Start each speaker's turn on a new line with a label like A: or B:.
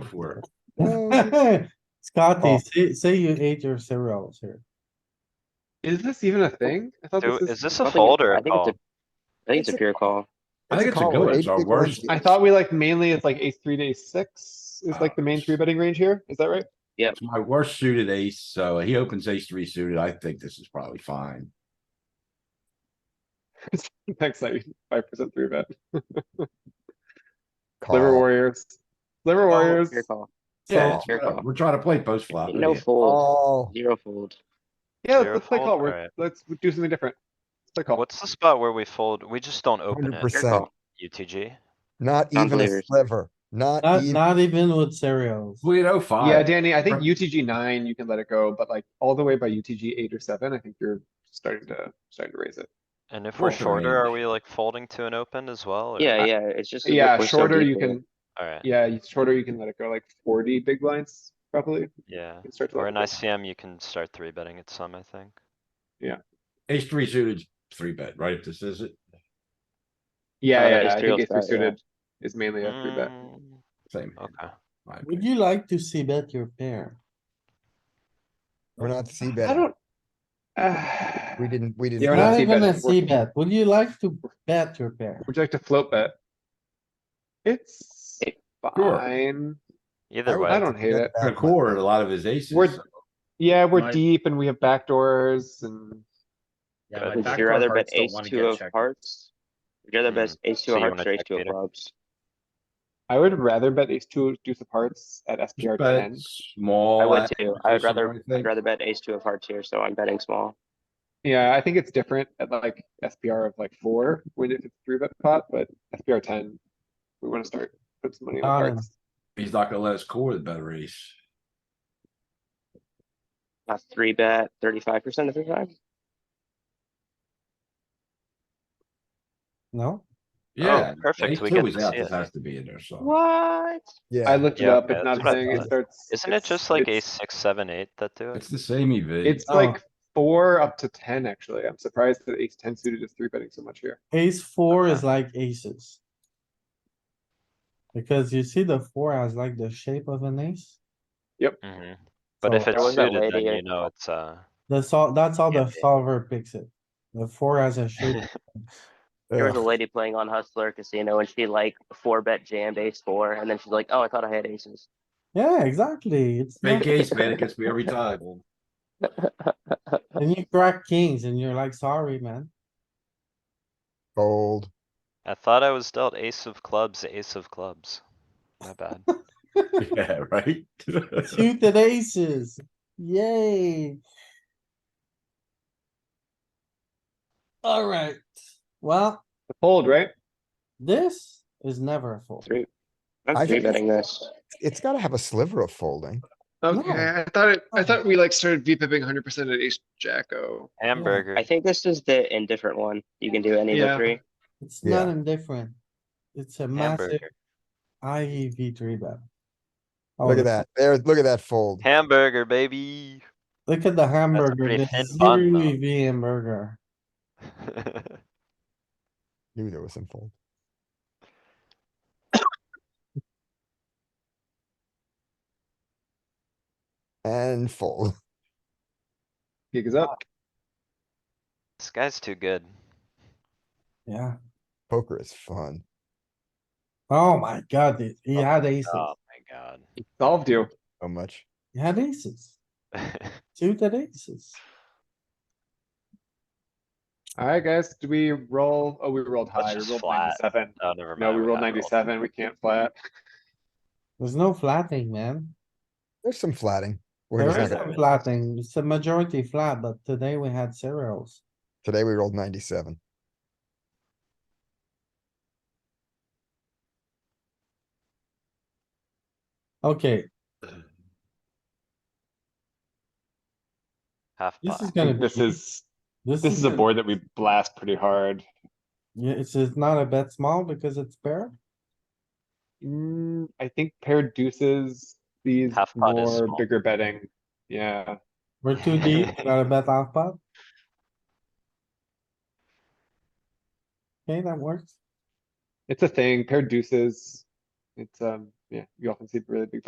A: for.
B: Scotty,
C: Oh.
B: say, say you ate your cereals here.
D: Is this even a thing? I thought
E: Do,
D: this
E: is
D: is,
E: this
C: I
E: a
C: think it-
E: fold or
C: I
E: a
C: think it's
E: call?
C: I think it's a pure call.
A: I think it's a
F: call,
A: good one,
F: right?
A: it's our
F: Ace-six
A: worst.
F: one's-
D: I thought we like mainly it's like ace three to ace six is like the main three betting range here. Is that right?
A: It's my worst suited ace, so he opens ace three suited. I think this is probably fine.
D: Next night, five percent three bet. Liver
F: Call.
D: warriors. Liver warriors.
C: Pure call.
A: Yeah,
B: So,
A: it's-
C: your call. oh
A: we're trying to play post
D: Oh,
A: flop.
C: No
A: idiot.
C: fold,
F: Call.
C: zero fold.
D: Yeah, let's-
E: Zero
D: let's play
E: fold?
D: call. We're,
E: Alright.
D: let's do something different. Let's play call.
E: What's the spot where we fold? We just don't open
F: Hundred
E: it,
F: percent.
C: call.
E: UTG.
F: Not even a
C: Non-believers.
F: sliver. Not
B: Not,
F: even.
B: not even with cereals.
A: We had oh
D: Yeah,
A: five.
D: Danny, I think
A: Right.
D: UTG nine, you can let it go, but like all the way by UTG eight or seven, I think you're starting to, starting to raise it.
E: And if
A: We're
E: we're shorter, are
A: range.
E: we like folding to an open as well? or-
C: Yeah, yeah, it's just.
D: Yeah,
C: we're so
D: shorter
C: deep
D: you
C: here.
D: can,
E: Alright,
D: yeah, you- shorter you can let it go, like forty big blinds probably.
E: yeah.
D: You start to
E: Or
D: let
E: in
D: it go.
E: ICM, you can start three betting at some, I think.
A: Ace three suited, three bet, right? This is it.
D: Yeah,
C: Uh,
D: yeah,
C: ace
D: yeah, I
C: three
D: think
C: will
D: ace three
C: start, yeah.
D: suited is mainly a three bet.
E: Mm,
A: Same. hand,
E: Okay,
A: my
B: Would
A: opinion.
B: you like to see bet your pair?
F: We're not C
D: I
F: betting.
D: don't. Ah,
F: We didn't, we didn't.
D: Yeah, we're
F: bet.
B: Not even a
D: c-betting.
B: C bet. Would you like to bet your pair?
D: Would you like to float bet? It's
C: It-
A: Sure.
D: fine.
E: either
D: I
E: way,
D: don't hate
F: Not
D: it.
A: The
F: bad.
A: core, had a lot of his aces.
D: We're-
A: so
D: Yeah, we're
G: My-
D: deep and we have backdoors and
G: Yeah,
E: Good.
G: my
C: Would you
G: backdoor
C: rather bet
G: hearts don't
C: ace
G: wanna
C: two
G: get
C: of
G: checked.
C: hearts? Would you rather bet
E: Mm.
C: ace
E: So
C: two of
E: you
C: hearts
E: wanna
C: or ace
E: check
C: two of
E: Peter?
C: clubs?
D: I would rather bet ace two deuce of hearts at SPR
A: just
D: ten.
A: Bet
D: Oh,
A: small.
C: I would too. I
A: acquisition
C: would
A: or
C: rather, I'd
A: anything.
C: rather bet ace two of hearts here, so I'm betting small.
D: Yeah, I think it's different at like SPR of like four, when if it's three bet pot, but SPR ten, we wanna start, put some money on the
B: Got him.
D: cards.
A: He's not gonna let us core the better ace.
C: A three bet, thirty-five percent of the time?
B: No?
A: Yeah.
E: perfect,
A: ace
E: we
A: two
E: get
A: is
E: to
A: out,
E: see
A: This
E: it.
A: has to be in there, so.
C: What?
D: I
F: Yeah,
D: looked it
E: Yeah,
D: up, it's
E: that's
D: not a
E: what I
D: thing, it
E: thought.
D: starts.
E: isn't it
D: it's-
E: just like
D: it's-
E: ace six, seven, eight that do
A: It's
E: it?
A: the same E EV.
D: It's
B: Oh.
D: like four up to ten, actually. I'm surprised that ace ten suited is three betting so much here.
B: Ace four
E: Okay.
B: is like aces. Because you see the four has like the shape of an ace.
E: Mhm. But
B: So
E: if
C: There
E: it's
C: was that
E: suited, then
C: lady-
E: you know it's, uh,
B: That's all, that's all the
E: Yeah.
B: solver picks it. The four has a shape.
C: There was a lady playing on Hustler Casino and she like four bet jammed ace four, and then she's like, oh, I thought I had aces.
B: Yeah, exactly. It's
A: Fake
B: not,
A: ace, man. It gets me every time.
B: and you crack kings and you're like, sorry, man.
F: fold.
E: I thought I was dealt ace of clubs, ace of clubs. My bad.
A: Yeah, right?
B: Suited aces. Yay. Alright, well,
D: Fold, right?
B: this is never a fold.
C: Three.
F: I
C: I'm three
F: think-
C: betting this.
F: It's gotta have a sliver of folding.
D: Okay, I thought it, I thought we like started V pipping hundred percent at ace jack O.
E: Hamburger.
C: I think this is the indifferent one. You can do any of the
D: Yeah.
C: three.
B: It's not indifferent. It's a massive
E: Hamburger.
B: IEV three bet. Oh,
F: Look at that. There, look at that fold.
E: Hamburger, baby.
B: Look at the hamburger,
E: pretty
B: the
E: thin bun,
B: zero
E: though.
B: EV E hamburger.
F: Knew there was some fold. And fold.
D: Gig is up.
E: This guy's too good.
B: Yeah.
F: Poker is fun.
B: Oh my god, dude, he had aces.
E: Oh my god.
D: Solved you.
F: So much.
B: He had aces. Suited aces.
D: Alright, guys, do we roll? Oh, we rolled
E: Let's
D: high. We
E: just
D: rolled
E: flat.
D: ninety-seven.
E: Oh, never mind.
D: No, we rolled
E: gotta roll.
D: ninety-seven. We can't flat.
B: There's no flatting, man.
F: There's some flatting. We're
B: There
F: just
B: is
F: not
B: some
F: gonna-
B: flatting. It's a majority flat, but today we had cereals.
F: Today we rolled ninety-seven.
B: Okay,
E: Half
B: this is
E: pot.
B: gonna be.
D: This is,
B: This
D: this is a
B: gonna-
D: board that we blast pretty hard.
B: Yeah, it's, it's not a bet small because it's paired.
D: Mm, I think pair deuces, these
E: Half pot is
D: more
E: small.
D: bigger betting. Yeah,
B: We're too deep, not a bet half pot. Okay, that works.
D: it's a thing. Pair deuces. It's, um, yeah, you often see really big